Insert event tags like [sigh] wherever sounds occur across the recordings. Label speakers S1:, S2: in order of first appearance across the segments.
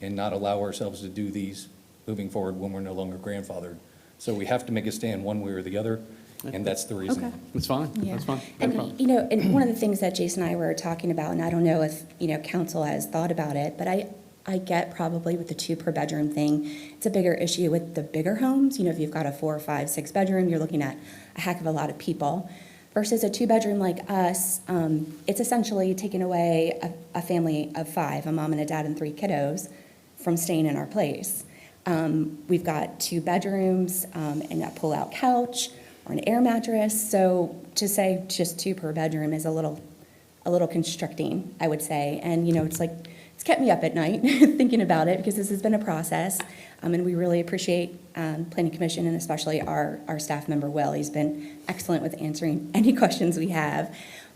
S1: and not allow ourselves to do these moving forward when we're no longer grandfathered. So we have to make a stand one way or the other, and that's the reason.
S2: Okay.
S3: That's fine,
S2: Yeah,
S3: that's fine. No problem.
S2: And, you know, and one of the things that Jason and I were talking about, and I don't know if, you know, council has thought about it, but I, I get probably with the two per bedroom thing, it's a bigger issue with the bigger homes. You know, if you've got a four, five, six bedroom, you're looking at a heck of a lot of people. Versus a two bedroom like us, um, it's essentially taking away a, a family of five, a mom and a dad and three kiddos, from staying in our place. Um, we've got two bedrooms um, and a pull-out couch or an air mattress. So to say just two per bedroom is a little, a little constricting, I would say. And you know, it's like it's kept me up at night [laughs] thinking about it because this has been a process. Um, and we really appreciate um, Planning Commission and especially our our staff member Will. He's been excellent with answering [laughs] any questions we have.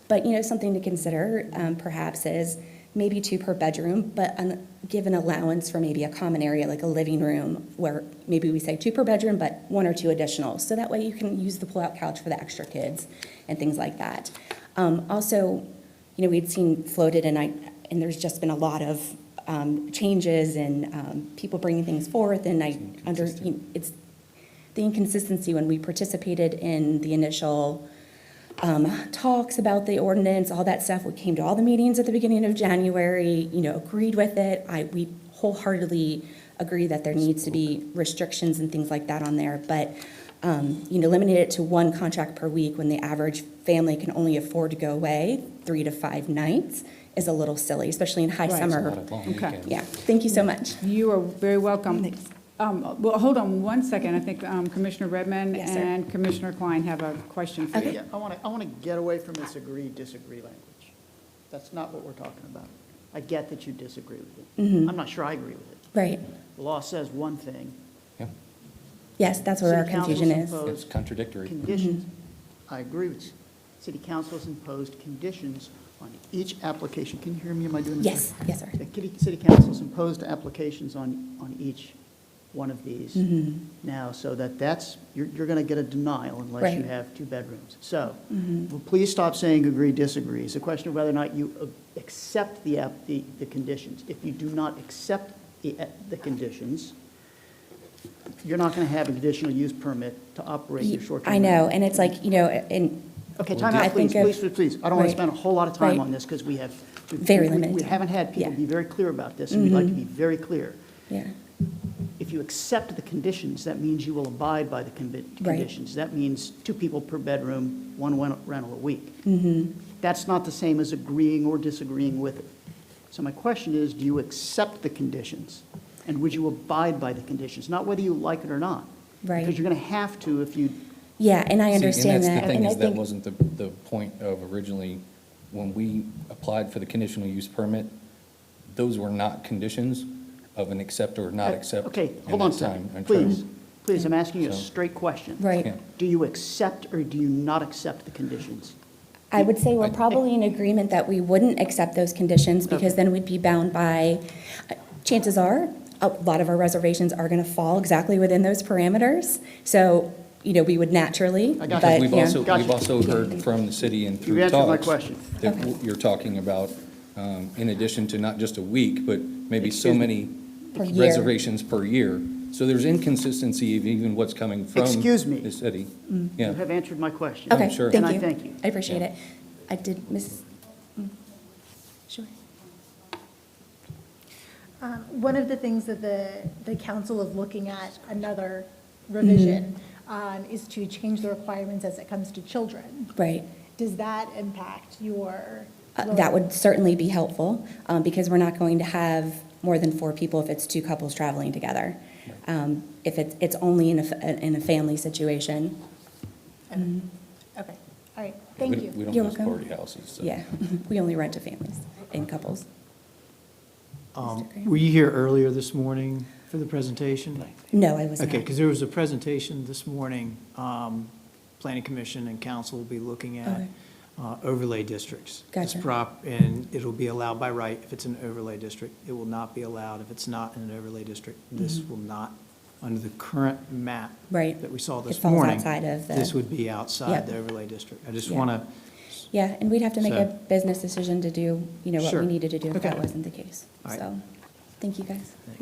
S2: But, you know, something to consider um, perhaps is maybe two per bedroom, but an- give an allowance for maybe a common area, like a living room, where maybe we say two per bedroom, but one or two additional. So that way you can use the pull-out couch for the extra kids and things like that. Um, Also, you know, we'd seen floated, and I, and there's just been a lot of um, changes and um, people bringing things forth, and I under, you know, it's the inconsistency when we participated in the initial um, talks about the ordinance, all that stuff. We came to all the meetings at the beginning of January, you know, agreed with it. I, we wholeheartedly agree that there needs to be restrictions and things like that on there. But, um, you know, limiting it to one contract per week when the average family can only afford to go away three to five nights is a little silly, especially in high
S1: Right. It's
S2: summer.
S1: not a long
S4: Okay.
S1: weekend.
S2: Yeah, thank you so much.
S4: You are very welcome. Um, Well, hold on one second. I think um, Commissioner Redman
S2: Yes, sir.
S4: and Commissioner Klein have a question for you.
S5: Yeah, I want to, I want to get away from this agree, disagree language. That's not what we're talking about. I get that you disagree with it. I'm not sure I agree with it.
S2: Mm-hmm. Right,
S5: The law says one thing.
S1: Yeah,
S2: yes, that's where our
S5: City council's
S2: confusion is.
S5: imposed
S1: It's contradictory.
S5: Conditions, I agree with you. City council has imposed conditions on each application. Can you hear me? Am I doing this?
S2: Yes,
S5: right?
S2: yes, sir.
S5: The kitty- city council's imposed applications on, on each one of these
S2: Mm-hmm.
S5: now, so that that's, you're, you're going to get a denial unless you
S2: Right. Mm-hmm.
S5: have two bedrooms. So, well, please stop saying agree, disagree. It's a question of whether or not you uh, accept the, app- the, the conditions. If you do not accept the, uh, the conditions, you're not going to have a conditional use permit to operate your short-term.
S2: I know,
S5: rental.
S2: and it's like, you know, and
S5: Okay,
S1: Well,
S5: time
S2: I
S5: out,
S2: think
S5: please,
S2: of-
S5: please, please, please. I don't want
S2: Right.
S5: to spend a whole lot of time
S2: Right.
S5: on this because we have. we-
S2: Very
S5: we- We
S2: limited.
S5: haven't had people
S2: Yeah. Mm-hmm.
S5: be very clear about this, and we'd like to be very clear.
S2: Yeah,
S5: If you accept the conditions, that means you will abide by the convi-
S2: Right.
S5: conditions. That means two people per bedroom, one wen- rental a week.
S2: Mm-hmm.
S5: That's not the same as agreeing or disagreeing with it. So my question is, do you accept the conditions? And would you abide by the conditions? Not whether you like it or not.
S2: Right.
S5: Because you're going to have to if you
S2: yeah, and I
S1: See, And that's
S2: understand that.
S1: the thing,
S2: and I
S1: is that
S2: think-
S1: wasn't the, the point of originally, when we applied for the conditional use permit, those were not conditions of an accept or not
S5: Uh,
S1: accept.
S5: Okay,
S1: in
S5: hold on a
S1: that time
S5: second,
S1: and
S5: please,
S1: term.
S5: please, I'm asking you a
S1: So-
S5: straight question.
S2: Right.
S1: Yeah.
S5: Do you accept or do you not accept the conditions?
S2: I would say
S1: I-
S2: we're probably in agreement that we wouldn't accept those conditions because then we'd be bound by, uh, chances are, a lot of our reservations are going to fall exactly within those parameters. So, you know, we would naturally,
S5: I got you.
S2: but,
S1: We've
S2: yeah.
S1: also,
S5: Gotcha.
S1: we've also heard from the city and through
S5: You
S1: talks.
S5: answered my question.
S1: That
S2: Okay.
S1: you're talking about, um, in addition to not just a week, but maybe so
S5: Excuse me.
S1: many
S2: Per year.
S1: reservations per year. So there's inconsistency of even what's coming from.
S5: Excuse me.
S1: The city.
S5: You
S1: Yeah,
S5: have answered my question.
S2: Okay,
S1: sure.
S2: thank you.
S5: And I thank you.
S2: I appreciate
S1: Yeah.
S2: it. I did, Mrs., mm, sure.
S6: Um, One of the things that the, the council is looking at, another revision,
S2: Mm-hmm.
S6: um, is to change the requirements as it comes to children.
S2: Right.
S6: Does that impact your?
S2: Uh, That would certainly be helpful, um, because we're not going to have more than four people if it's two couples traveling together. Um, If it's, it's only in a, f- uh, in a family situation,
S6: Okay, all right,
S1: We
S6: thank
S1: don't- We
S6: you.
S1: don't
S2: You're
S1: have
S2: welcome.
S1: party houses, so.
S2: yeah, [laughs] we only rent to families and couples.
S7: Um,
S2: Mr. Graham?
S7: Were you here earlier this morning for the presentation?
S2: No, I was not.
S7: Okay, because there was a presentation this morning, um, Planning Commission and Council will be looking at
S2: Okay.
S7: uh, overlay districts. This
S2: Gotcha.
S7: prop, and it'll be allowed by right if it's an overlay district. It will not be allowed if it's not in an overlay district. This will not, under the current map.
S2: Mm-hmm. Right.
S7: That we saw
S2: It
S7: this
S2: falls
S7: morning.
S2: outside of the-
S7: This would be
S2: Yep.
S7: outside the overlay district. I just
S2: Yeah.
S7: want to,
S2: Yeah, and we'd have to make a
S7: So-
S2: business decision to do, you know, what we
S7: Sure.
S2: needed to do if that
S7: Okay.
S2: wasn't the case,
S7: All right.
S2: so. Thank you, guys.